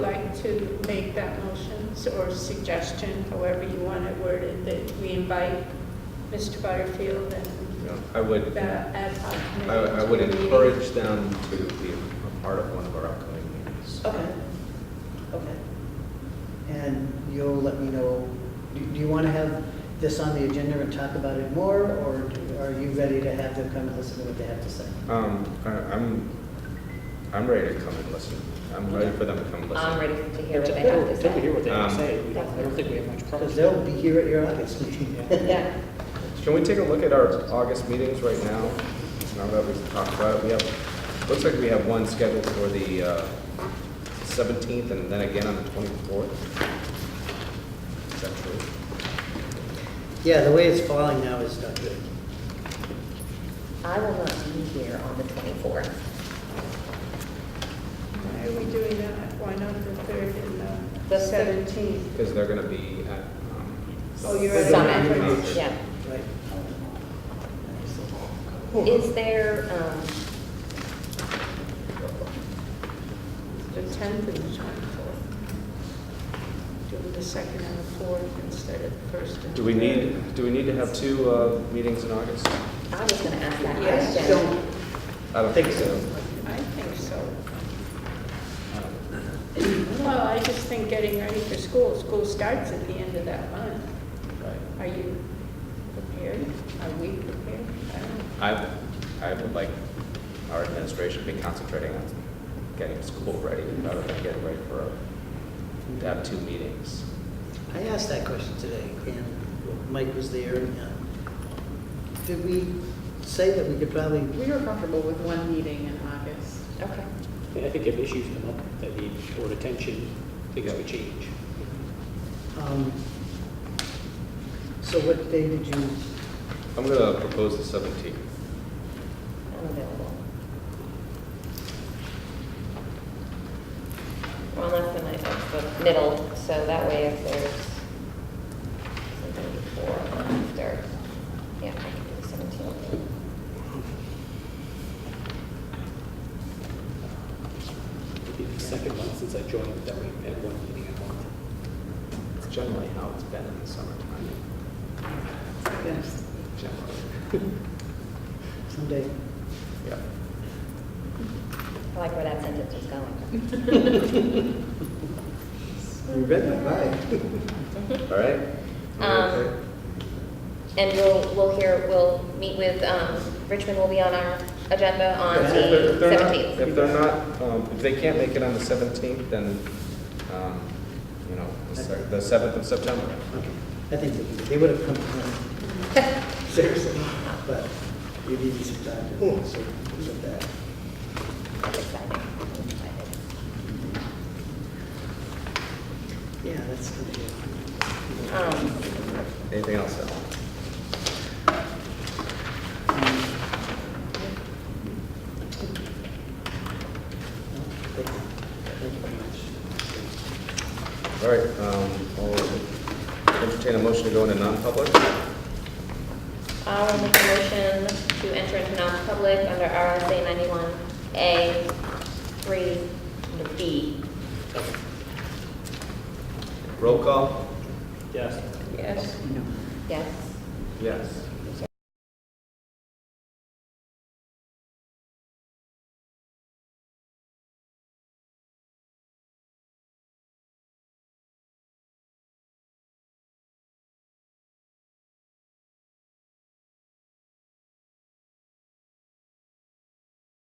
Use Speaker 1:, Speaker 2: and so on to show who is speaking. Speaker 1: to make that motion or suggestion, however you want to word it, that we invite Mr. Butterfield and
Speaker 2: Yeah, I would,
Speaker 1: the ad hoc
Speaker 2: I
Speaker 1: committee?
Speaker 2: I would
Speaker 1: to the meeting?
Speaker 2: encourage them to be a part of one of our upcoming meetings.
Speaker 3: Okay, okay. And you'll let me know, do do you want to have this on the agenda and talk about it more, or do- are you ready to have them come and listen to what they have to say?
Speaker 2: Um, I- I'm, I'm ready to come and listen. I'm ready for them to come and listen.
Speaker 4: I'm ready to hear
Speaker 5: Until
Speaker 4: what they have to
Speaker 5: until we hear
Speaker 4: say.
Speaker 5: what they have to
Speaker 2: Um,
Speaker 5: say, we don't- I don't think we have much
Speaker 3: Because
Speaker 5: problems.
Speaker 3: they'll be here at your August meeting.
Speaker 4: Yeah,
Speaker 2: Can we take a look at our August meetings right now? Now that we've talked about it, we have, looks like we have one scheduled for the uh, 17th and then again on the 24th. Is that true?
Speaker 3: Yeah, the way it's falling now is not good.
Speaker 4: I will not be here on the 24th.
Speaker 1: Why are we doing that? Why not the 3rd and the
Speaker 4: The third.
Speaker 1: 17th?
Speaker 2: Because they're going to be at. um,
Speaker 1: Oh, you're
Speaker 3: at a
Speaker 4: Summit,
Speaker 3: conference.
Speaker 4: yeah.
Speaker 3: Right.
Speaker 4: Is there, um,
Speaker 1: The 10th and the 24th? Doing the 2nd and the 4th instead of the 1st and the
Speaker 2: Do we
Speaker 1: 3rd?
Speaker 2: need, do we need to have two uh, meetings in August?
Speaker 4: I was gonna ask that
Speaker 1: Yes,
Speaker 3: I
Speaker 4: question.
Speaker 3: don't,
Speaker 2: I don't
Speaker 3: Think so.
Speaker 1: I think so.
Speaker 2: I don't-
Speaker 1: Well, I just think getting ready for school, school starts at the end of that month. Are you prepared? Are we prepared? I don't know.
Speaker 2: I, I would like our administration to be concentrating on getting school ready rather than getting ready for, to have two meetings.
Speaker 3: I asked that question today, and Mike was there, and uh, did we say that we could probably
Speaker 6: We were comfortable with one meeting in August.
Speaker 4: Okay.
Speaker 5: I think if issues come up that need board attention, things would change.
Speaker 3: Um, So what day did you,
Speaker 2: I'm gonna propose the seventeenth.
Speaker 4: I'm available. Well, that's the night, that's the middle, so that way if there's something before or after, yeah, I can do the seventeenth.
Speaker 5: It'd be the second month since I joined that we had one meeting a month.
Speaker 2: It's generally how it's been in the summertime,
Speaker 6: Yes.
Speaker 2: generally.
Speaker 3: someday?
Speaker 2: Yeah.
Speaker 4: I like where that sentence is going.
Speaker 3: You read my mind.
Speaker 2: All right?
Speaker 4: Um, And we'll, we'll hear, we'll meet with, um, Richmond will be on our agenda on
Speaker 2: If they're-
Speaker 4: the
Speaker 2: if they're not-
Speaker 4: seventeenth.
Speaker 2: If they're not, um, if they can't make it on the seventeenth, then, um, you know, the se- the seventh of September.
Speaker 3: I think they- they would have come to me, seriously, but you needed some time to sort of that.
Speaker 4: I'm excited. I'm excited.
Speaker 3: Yeah, that's gonna be,
Speaker 4: Um,
Speaker 2: Anything else, Ellen?
Speaker 3: um, no, Thank you Thank you very much.
Speaker 2: All right, um, I'll entertain a motion to go into non-public.
Speaker 4: I will make a motion to enter into non-public under RSA ninety-one A three, under B.
Speaker 2: Roll call?
Speaker 5: Yes.
Speaker 1: Yes.
Speaker 4: Yes.
Speaker 2: Yes.